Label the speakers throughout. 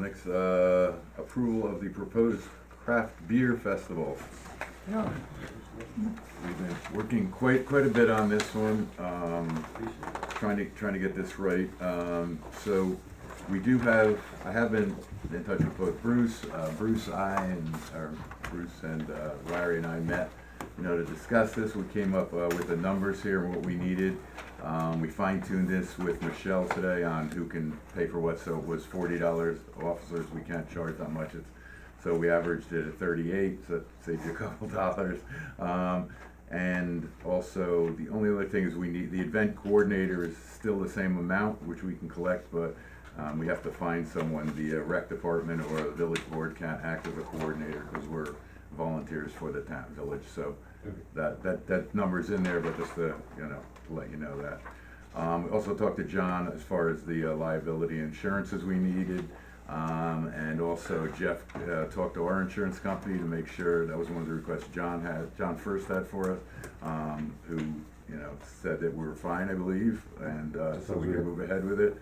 Speaker 1: six, uh, approval of the proposed craft beer festival.
Speaker 2: Yeah.
Speaker 1: We've been working quite, quite a bit on this one, um, trying to, trying to get this right. Um, so we do have, I have been in touch with both Bruce, uh, Bruce, I and, or Bruce and uh, Larry and I met, you know, to discuss this. We came up uh, with the numbers here and what we needed. Um, we fine tuned this with Michelle today on who can pay for what, so it was forty dollars. Officers, we can't charge that much, it's, so we averaged it at thirty-eight, so that saves you a couple dollars. Um, and also, the only other thing is we need, the event coordinator is still the same amount, which we can collect, but, um, we have to find someone, the uh, rec department or the village board can't act as a coordinator, cause we're volunteers for the town, village, so that, that, that number's in there, but just to, you know, to let you know that. Um, we also talked to John as far as the uh, liability insurances we needed. Um, and also Jeff, uh, talked to our insurance company to make sure, that was one of the requests John had, John first had for us, um, who, you know, said that we were fine, I believe, and, uh, so we could move ahead with it.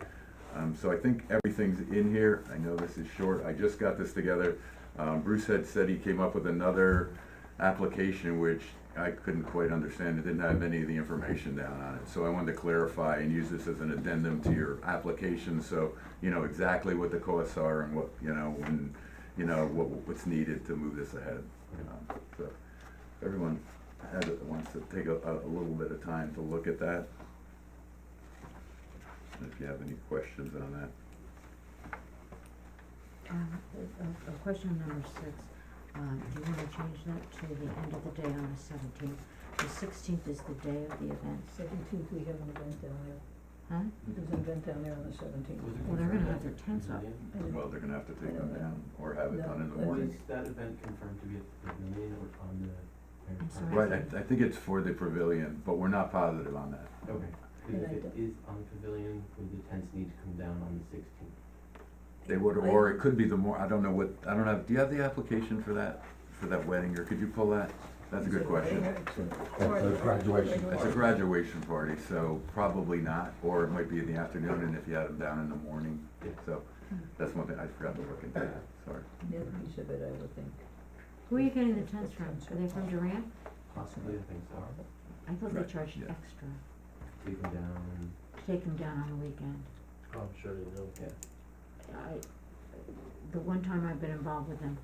Speaker 1: Um, so I think everything's in here. I know this is short. I just got this together. Um, Bruce had said he came up with another application which I couldn't quite understand. It didn't have any of the information down on it. So I wanted to clarify and use this as an addendum to your application, so you know exactly what the costs are and what, you know, and, you know, what, what's needed to move this ahead. Um, So if everyone has, wants to take a, a a little bit of time to look at that. If you have any questions on that.
Speaker 3: Um, a- a, a question on number six, um, do you wanna change that to the end of the day on the seventeenth? The sixteenth is the day of the event,
Speaker 4: Seventeenth, we have an event down there.
Speaker 3: huh?
Speaker 4: There's an event down there on the seventeenth.
Speaker 3: Well, they're gonna have their tents up.
Speaker 1: Well, they're gonna have to take them down or have it done in the morning.
Speaker 5: Is that event confirmed to be at the pavilion or on the?
Speaker 3: I'm sorry.
Speaker 1: Right, I, I think it's for the pavilion, but we're not positive on that.
Speaker 5: Okay, 'cause if
Speaker 4: And I
Speaker 5: it is on the pavilion, would the tents need to come down on the sixteenth?
Speaker 1: They would, or it could be the more, I don't know what, I don't have, do you have the application for that, for that wedding, or could you pull that? That's a good question.
Speaker 6: graduation.
Speaker 1: It's a graduation party, so probably not, or it might be in the afternoon, and if you had them down in the morning.
Speaker 5: Yeah.
Speaker 1: So, that's one thing, I forgot to look into that, sorry.
Speaker 4: Another piece of it, I would think.
Speaker 3: Who are you getting the tents from? Are they from Durant?
Speaker 5: Possibly, I think so.
Speaker 3: I thought they
Speaker 1: Right,
Speaker 3: charged
Speaker 1: yeah.
Speaker 3: extra
Speaker 5: Take them down and.
Speaker 3: to take them down on the weekend.
Speaker 1: Oh,
Speaker 6: I'm sure they do.
Speaker 3: I, the one time I've been involved with them,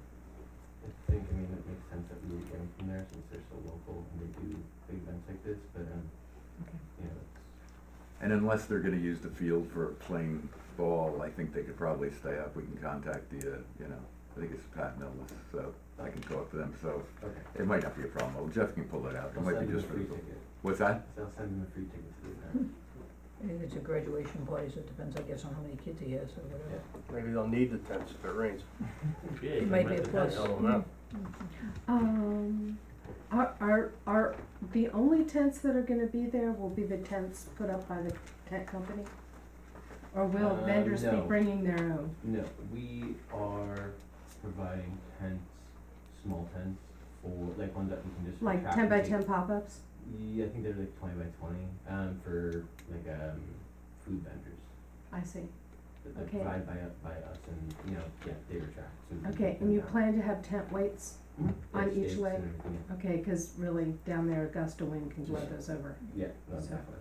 Speaker 5: I think, I mean, it makes sense that we would get them from there since they're so local and they do big events like this, but, um,
Speaker 3: Okay.
Speaker 5: you know, it's,
Speaker 1: And unless they're gonna use the field for playing ball, I think they could probably stay up, we can contact the, uh, you know, I think it's Pat Millis, so I can talk to them, so
Speaker 5: okay.
Speaker 1: it might not be a problem, Jeff can pull it out, it
Speaker 5: I'll
Speaker 1: might
Speaker 5: send
Speaker 1: be
Speaker 5: them a
Speaker 1: just for the.
Speaker 5: free ticket.
Speaker 1: What's that?
Speaker 5: So I'll send them a free ticket to the event.
Speaker 4: And if it's a graduation party, so it depends, I guess, on how many kids he has or whatever.
Speaker 6: Maybe they'll need the tents if it rains.
Speaker 4: It might be a plus. Hmm.
Speaker 7: Um, are, are, are, the only tents that are gonna be there will be the tents put up by the tent company? Or will
Speaker 5: Uh,
Speaker 7: vendors be
Speaker 5: no.
Speaker 7: bringing their own?
Speaker 5: No, we are providing tents, small tents for, like ones that we can just.
Speaker 7: Like
Speaker 5: retract
Speaker 7: ten by
Speaker 5: and
Speaker 7: ten pop-ups?
Speaker 5: take- Yeah, I think they're like twenty by twenty, um, for like, um, food vendors.
Speaker 7: I see.
Speaker 5: that they're
Speaker 7: Okay.
Speaker 5: Provided by, u- by us and, you know, yeah, they retract, so. we can
Speaker 7: Okay,
Speaker 5: take them
Speaker 7: and you
Speaker 5: down.
Speaker 7: plan to have tent weights?
Speaker 5: Mhm.
Speaker 7: on
Speaker 5: Like
Speaker 7: each
Speaker 5: stakes
Speaker 7: leg?
Speaker 5: and everything, yeah.
Speaker 7: Okay, cause really down there Augusta wind can blow those over.
Speaker 5: Yeah, no,
Speaker 7: So-
Speaker 5: exactly.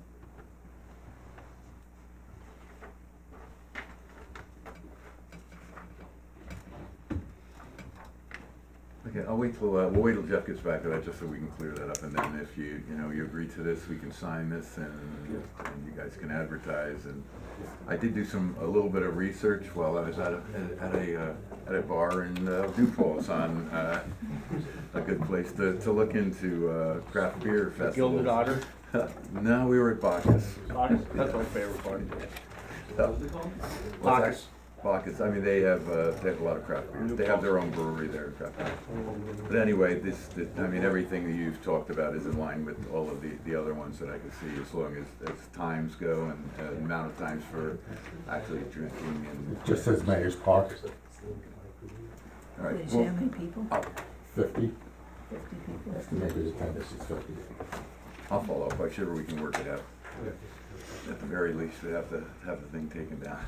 Speaker 1: Okay, I'll wait till, uh, we'll wait till Jeff gets back to that, just so we can clear that up, and then if you, you know, you agree to this, we can sign this, and, and you guys can advertise, and I did do some, a little bit of research while I was at a, at a, uh, at a bar in, uh, Dew Falls on, uh, a good place to, to look into, uh, craft beer festivals.
Speaker 6: Gilded otter.
Speaker 1: No, we were at Bacchus.
Speaker 6: That's my favorite part.
Speaker 5: What was it called?
Speaker 1: Well,
Speaker 6: Bacchus.
Speaker 1: it's act- Bacchus, I mean, they have, uh, they have a lot of craft beer, they have their own brewery there, craft beer. But anyway, this, th- I mean, everything that you've talked about is in line with all of the, the other ones that I could see, as long as, as times go and uh, amount of times for actually drinking and,
Speaker 6: Just says Mayor's Park,
Speaker 1: all
Speaker 4: Did
Speaker 1: right.
Speaker 4: you say
Speaker 1: well,
Speaker 4: how many people?
Speaker 6: fifty,
Speaker 4: Fifty people?
Speaker 6: maybe the tent is fifty.
Speaker 1: I'll follow up, I'm sure we can work it out.
Speaker 5: Okay.
Speaker 1: At the very least, we have to have the thing taken down.